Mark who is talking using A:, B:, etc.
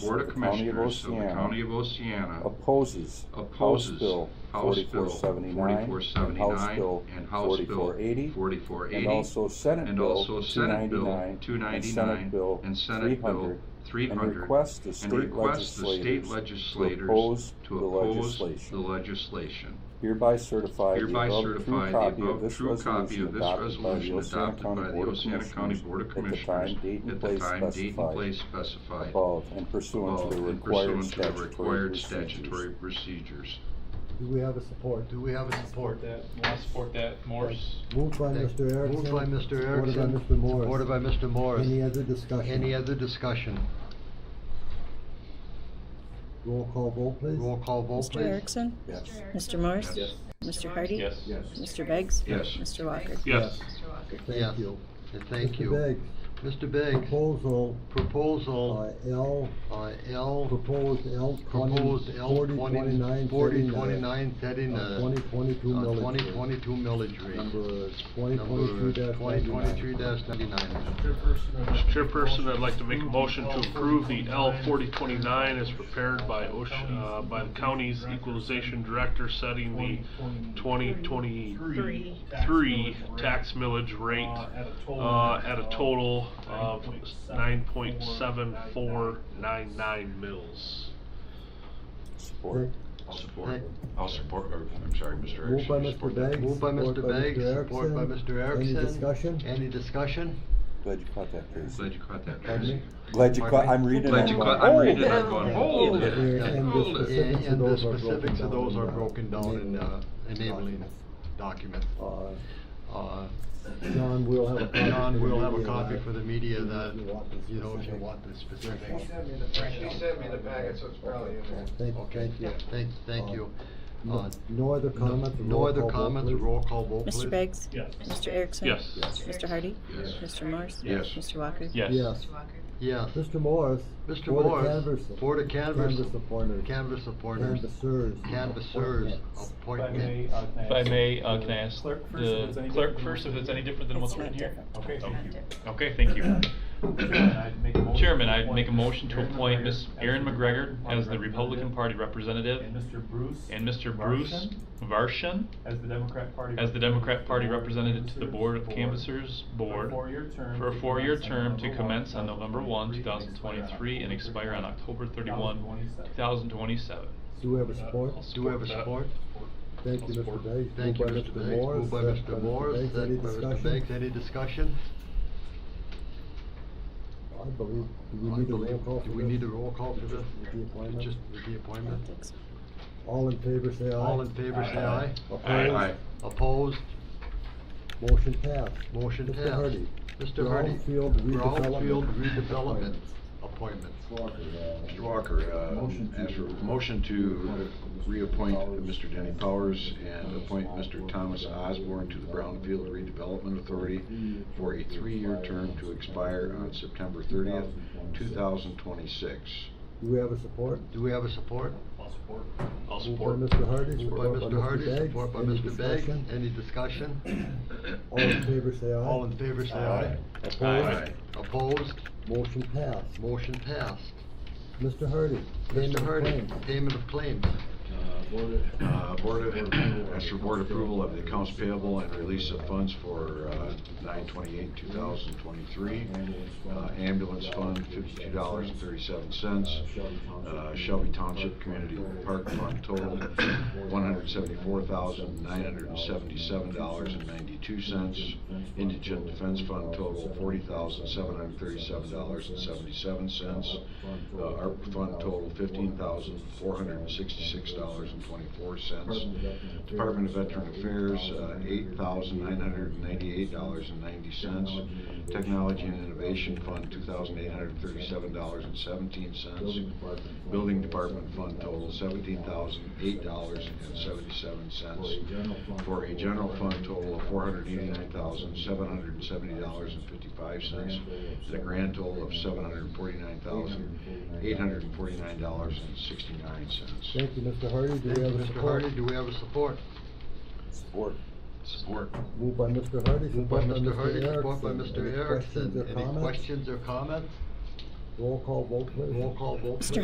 A: Board
B: of
A: of
B: the County of
A: Commissioners of the
B: Oceana
A: County of Oceana
B: opposes House
A: opposes
B: Bill
A: House Bill
B: 4479 and House
A: 4479
B: Bill
A: and House Bill
B: 4480 and
A: 4480,
B: also Senate
A: and
B: Bill
A: also Senate Bill
B: 299 and Senate
A: 299
B: Bill
A: and Senate Bill
B: 300 and
A: 300,
B: request the
A: and
B: state
A: request the state
B: legislators
A: legislators
B: to oppose
A: to
B: the
A: oppose the
B: legislation.
A: legislation.
B: Hereby certify the
A: Hereby
B: above
A: certify
B: true
A: the
B: copy of
A: above
B: this
A: true copy
B: resolution
A: of this
B: adopted by the
A: resolution
B: Oceana
A: adopted by
B: County
A: the
B: Board of
A: Oceana County Board of
B: Commissioners at the
A: Commissioners
B: time, date, and
A: at the
B: place
A: time, date, and
B: specified
A: place specified
B: above and pursuant
A: above
B: to the
A: Oh, and
B: required
A: pursuant to the
B: statutory
A: required
B: procedures.
A: statutory procedures.
C: Do we have a support?
D: Do we have a support?
E: that, I support that, Morse.
C: Moved by Mr. Erickson.
D: Moved by Mr. Erickson.
C: Supported by Mr. Morris.
D: Supported by Mr. Morris.
C: Any other discussion?
D: Any other discussion?
C: Roll call vote, please.
D: Roll call vote,
F: Mr.
D: please.
F: Erickson?
B: Yes.
F: Mr. Morris?
E: Yes.
F: Mr. Hardy?
E: Yes.
F: Mr. Beggs?
A: Yes.
F: Mr. Walker?
E: Yes.
D: Yes.
C: Thank you.
D: And thank you.
C: Mr.
D: Mr.
C: Begg,
D: Beggs,
C: proposal, uh,
D: proposal,
C: L,
D: uh, L,
C: proposed L
D: proposed
C: twenty,
D: L
C: forty,
D: twenty,
C: twenty-nine,
D: forty,
C: thirty-nine.
D: twenty-nine, setting
C: uh,
D: a.
C: Twenty twenty-two millage.
D: Twenty twenty-two millage rate.
C: Number twenty twenty-two dash
D: Twenty twenty-two ninety-nine.
E: Chairperson, I'd like to make a motion to approve the L forty twenty-nine as prepared by Ocean, uh, by the county's equalization director setting the twenty twenty-three tax millage rate, uh, at a total of nine point seven four nine nine mils.
B: Support.
A: I'll support, I'll support, or, I'm sorry, Mr.
C: Moved by
A: Erickson. you
C: Mr.
A: support that?
C: Begg.
D: Moved by Mr. Beggs, support by Mr. Erickson.
C: Any discussion?
D: Any discussion?
B: Glad you caught that, Tracy.
A: Glad you caught that,
D: Pardon
A: Tracy.
D: me?
B: Glad you caught, I'm reading.
A: Glad you
B: I'm
A: caught,
B: going,
A: I'm
B: "Oh,
A: reading it, I'm going, hold
D: Yeah.
A: it,
C: And the
A: hold it.
C: specifics
D: And
C: of
D: and the
C: those are broken
D: specifics of those
C: down
D: are
C: in, uh,
D: broken down in uh, enabling
C: enabling
D: document.
C: Uh,
D: Uh,
C: John will have a copy. for
D: John
C: the uh,
D: will have a
C: media
D: copy
C: that-
D: for the media
C: if
D: that,
C: you want the
D: you know, if you
C: specific-
D: want the specifics.
G: She sent me the packet, so it's probably in there.
C: Thank,
D: Okay,
C: thank you.
D: thank, thank
C: Uh,
D: you.
C: No-
D: Uh,
C: No other
D: No
C: comments?
D: no
C: roll
D: other
C: call vote,
D: comments,
C: please.
D: roll call vote, please.
F: Mr. Beggs?
E: Yes.
F: Mr. Erickson?
E: Yes. Yes.
F: Mr. Hardy?
A: Yes.
F: Mr. Morris?
A: Yes.
F: Mr. Walker?
E: Yes.
C: Yes.
D: Yes.
C: Mr. Morris.
D: Mr.
C: Board of
D: Morris,
C: Canvassers-
D: Board of Canvassers-
C: Canvas appointers.
D: Canvas supporters,
C: Canvassers.
D: canvassers,
C: appointments.
H: If I
D: appointment.
H: may, uh, can I
E: If I
H: ask
E: may, uh,
H: the
E: can I ask
H: clerk first if it's
E: the
H: any
E: clerk
H: different
E: first
H: than
E: if
H: what's
E: it's any different than
F: It's
E: what's
F: not
E: written here?
F: different.
E: Okay,
F: It's
E: thank
F: not
E: you.
F: different.
E: Okay, thank you.
H: I'd make a motion to
E: Chairman, I'd
H: appoint
E: make a motion to
H: Erin
E: appoint
H: McGregor
E: Ms.
H: as
E: Erin
H: the
E: McGregor as the Republican
H: Republican
E: Party representative
H: And Mr. Bruce.
E: and Mr. Bruce
H: Varshan
E: Varshan
H: As the Democrat Party.
E: as the Democrat
H: representative to
E: Party
H: the Board
E: representative
H: of
E: to the
H: Canvassers
E: Board of Canvassers
H: For a
E: Board
H: four-year term.
E: for a
H: to
E: four-year
H: commence on
E: term to
H: November
E: commence on
H: 1,
E: November one, two thousand
H: 2023,
E: twenty-three, and expire on October thirty-one,
H: 2027.
E: two thousand twenty-seven.
C: Do we have a support?
D: Do we have a support?
C: Thank you, Mr.
E: support.
C: Beggs.
D: Thank you,
C: Moved
D: Mr. Beggs, moved by
C: second
D: Mr. Morris,
C: Beggs. Any
D: second by Mr.
C: discussion?
D: Beggs, any discussion?
C: I believe, do we
D: I
C: need a roll
D: believe-
C: call for
D: Do we
C: this?
D: need a roll call for this?
C: With the appointment?
D: Just with the
F: I
D: appointment?
F: don't think so.
C: All in favor, say aye.
D: All in favor, say aye.
E: Aye.
C: Opposed?
A: Aye.
D: Opposed?
C: Motion passed.
D: Motion
C: Mr.
D: passed.
C: Hardy.
D: Mr. Hardy.
C: Brownfield redevelopment.
D: Brownfield redevelopment appointments.
A: Mr. Walker, uh, as a motion to reappoint Mr. Denny Powers and appoint Mr. Thomas Osborne to the Brownfield Redevelopment Authority for a three-year term to expire on September thirtieth, two thousand twenty-six.
C: Do we have a support?
D: Do we have a support?
C: Moved
E: I'll support.
C: by Mr. Hardy.
D: Moved by
C: supported
D: Mr. Hardy,
C: Beggs.
D: support by
C: Any
D: Mr. Begg.
C: discussion?
D: Any discussion?
C: All in favor, say aye.
D: All in favor, say aye.
E: Aye.
D: Opposed?
C: Motion passed.
D: Motion passed.
C: Mr. Hardy. payment
D: Mr.
C: of
D: Hardy,
C: claims.
D: payment of claims.
A: Uh, Board of, as for board approval of the accounts payable and release of funds for uh, nine twenty-eight, two thousand twenty-three. Uh, Ambulance fund, fifty-two dollars and thirty-seven cents. Uh, Shelby Township Community Park Fund total, one hundred seventy-four thousand, nine hundred and seventy-seven dollars and ninety-two cents. Indigent Defense Fund total, forty thousand, seven hundred and thirty-seven dollars and seventy-seven cents. ARP Uh, Fund total, fifteen thousand, four hundred and sixty-six dollars and twenty-four cents. Department of Veteran Affairs, uh, eight thousand nine hundred and ninety-eight dollars and ninety cents. Technology and Innovation Fund, two thousand eight hundred and thirty-seven dollars and seventeen cents. Building Department Fund total, seventeen thousand eight dollars and seventy-seven cents. For a general fund total of four hundred eighty-nine thousand seven hundred and seventy dollars and fifty-five cents. And a grand total of seven hundred and forty-nine thousand eight hundred and forty-nine dollars and sixty-nine cents.
C: Thank you, Mr. Hardy. Do
D: Thank
C: we
D: you,
C: have a
D: Mr.
C: support?
D: Hardy, do we have a support?
B: Support.
A: Support.
C: Moved by Mr. Hardy.
D: Moved by
C: supported
D: Mr. Hardy, support by
C: Erickson.
D: Mr.
C: Any
D: Erickson.
C: Questions or
D: Any
C: comments?
D: questions or comments?
I: Roll call vote, please.
C: Roll call vote.
D: Mr.